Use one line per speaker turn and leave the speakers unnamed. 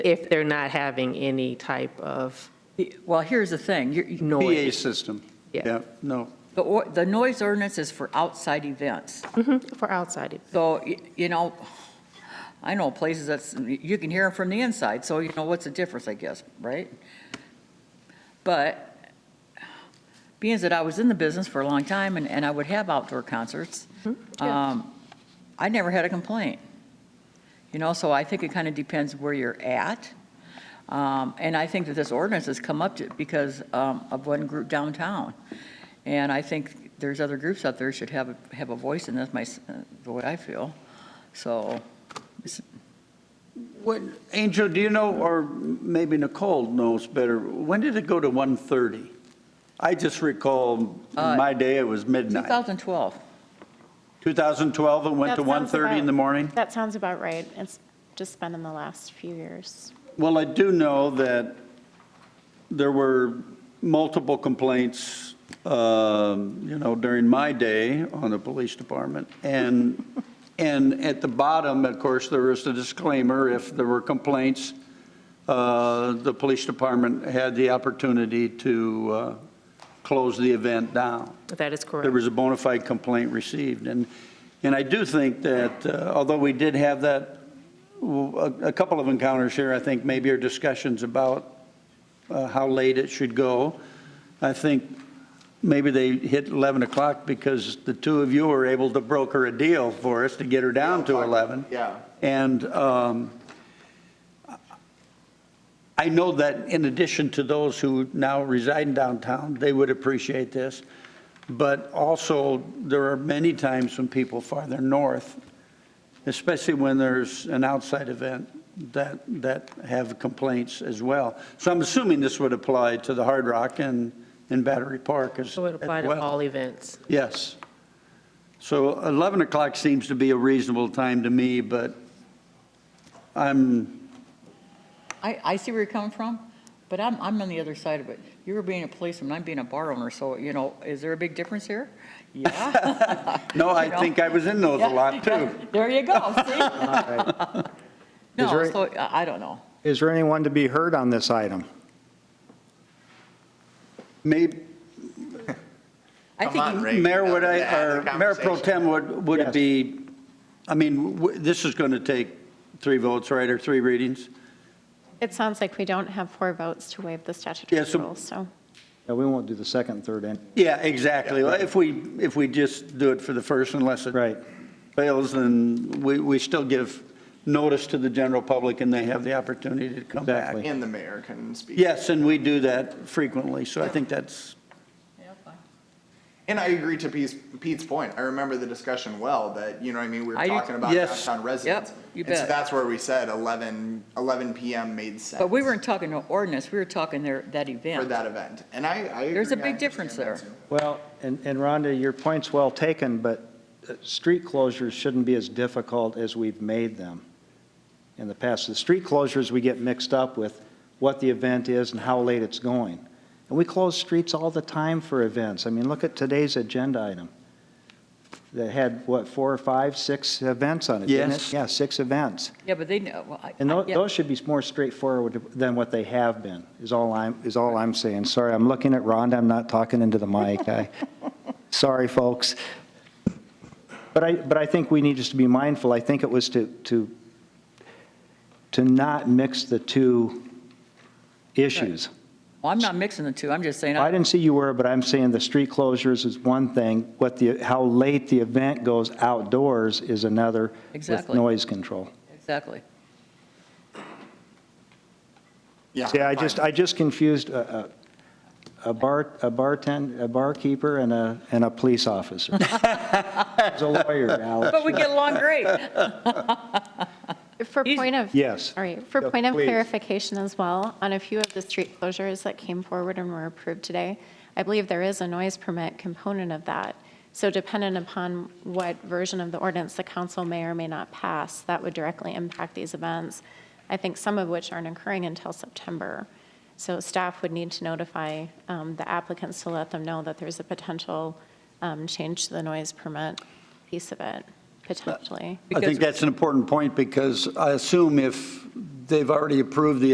if they're not having any type of
Well, here's the thing, You're- you-
noise.
PA system.
Yeah.
no.
the or- the noise ordinance is for outside events.
Mhm, For outside, it-
So, y- you know, I know places that's, you can hear them from the inside, so you know, what's the difference, I guess, right? But being that I was in the business for a long time and, and I would have outdoor concerts,
yeah.
um, I never had a complaint. You know, so I think it kind of depends where you're at. Um, And I think that this ordinance has come up to, because um, of one group downtown. And I think there's other groups out there should have, a- have a voice in this, my, s- uh, the way I feel. So,
What, Angel, do you know, or maybe Nicole knows better, when did it go to 1:30? I just recall, in
Uh,
my day, it was midnight.
2012,
2012, it went
That
to
sounds
1:30 in
about-
the morning?
That sounds about right. It's just been in the last few years.
Well, I do know that there were multiple complaints, um, you know, during my day on the police department. And, and at the bottom, of course, there is the disclaimer, if there were complaints, uh, the police department had the opportunity to uh, close the event down
that is
there
correct.
was a bona fide complaint received. And, and I do think that, uh, although we did have that, w- a a couple of encounters here, I think maybe our discussions about uh, how late it should go, I think maybe they hit 11 o'clock because the two of you were able to broker a deal for us to get her down to 11.
Yeah.
And um, I know that in addition to those who now reside in downtown, they would appreciate this. But also, there are many times when people farther north, especially when there's an outside event, that, that have complaints as well. So I'm assuming this would apply to the Hard Rock and, and Battery Park as as
So
well.
it applied to all events.
Yes. So 11 o'clock seems to be a reasonable time to me, but I'm,
I, I see where you're coming from, but I'm, I'm on the other side of it. You were being a policeman, I'm being a bar owner, so, you know, is there a big difference here? Yeah.
no, I
You know?
think I was in those a lot, too.
There you go, see?
Is
No,
there-
so, I I don't know.
Is there anyone to be heard on this item?
Maybe,
I
Come
think
on,
you-
Ray.
Mayor, would I,
Add the
or Mayor Pro
conversation.
Tem, would, would it
Yes.
be, I mean, w- this is going to take three votes, right, or three readings?
It sounds like we don't have four votes to waive the statutory
Yeah, so-
rule, so.
No, we won't do the second, and third, and,
Yeah, exactly. Well, If we, if we just do it for the first unless it
right.
fails, then we, we still give notice to the general public and they have the opportunity to come back.
Exactly.
And the mayor can speak.
Yes, and we do that frequently, so I think that's,
Yeah, fine.
And I agree to Pete's, Pete's point. I remember the discussion well, that, you know what I mean? We were
I do-
talking about
Yes.
downtown residents.
Yep, you
And so
bet.
that's where we said 11, 11 PM made sense.
But we weren't talking no ordinance, we were talking their, that event.
For that event. And I, I agree.
There's a
I
big difference
understand that
there.
too.
Well, and and Rhonda, your point's well taken, but uh, street closures shouldn't be as difficult as we've made them in the past. The street closures, we get mixed up with what the event is and how late it's going. And we close streets all the time for events. I mean, look at today's agenda item that had, what, four or five, six events on it, didn't it?
Yes.
Yeah, six events.
Yeah, but they know, well, I.
And
I-
tho-
yeah.
those should be more straightforward than what they have been, is all I'm, is all I'm saying. Sorry, I'm looking at Rhonda, I'm not talking into the mic. I- Sorry, folks. But I, but I think we need just to be mindful. I think it was to, to, to not mix the two issues.
Well, I'm not mixing the two, I'm just saying,
I
I-
didn't see you were, but I'm saying the street closures is one thing, what the, how late the event goes outdoors is another with
Exactly.
noise control.
exactly.
Yeah.
Yeah, I
fine.
just, I just confused a, a a bar, a bartend, a barkeeper and a, and a police officer. As a lawyer, Alex.
But we get along great.
For
He's-
point of.
Yes.
All right, for
Yeah,
point of
please.
clarification as well, on a few of the street closures that came forward and were approved today, I believe there is a noise permit component of that. So dependent upon what version of the ordinance the council may or may not pass, that would directly impact these events. I think some of which aren't occurring until September. So staff would need to notify um, the applicants to let them know that there's a potential um, change to the noise permit piece of it, potentially.
I think that's an important point because I assume if they've already approved the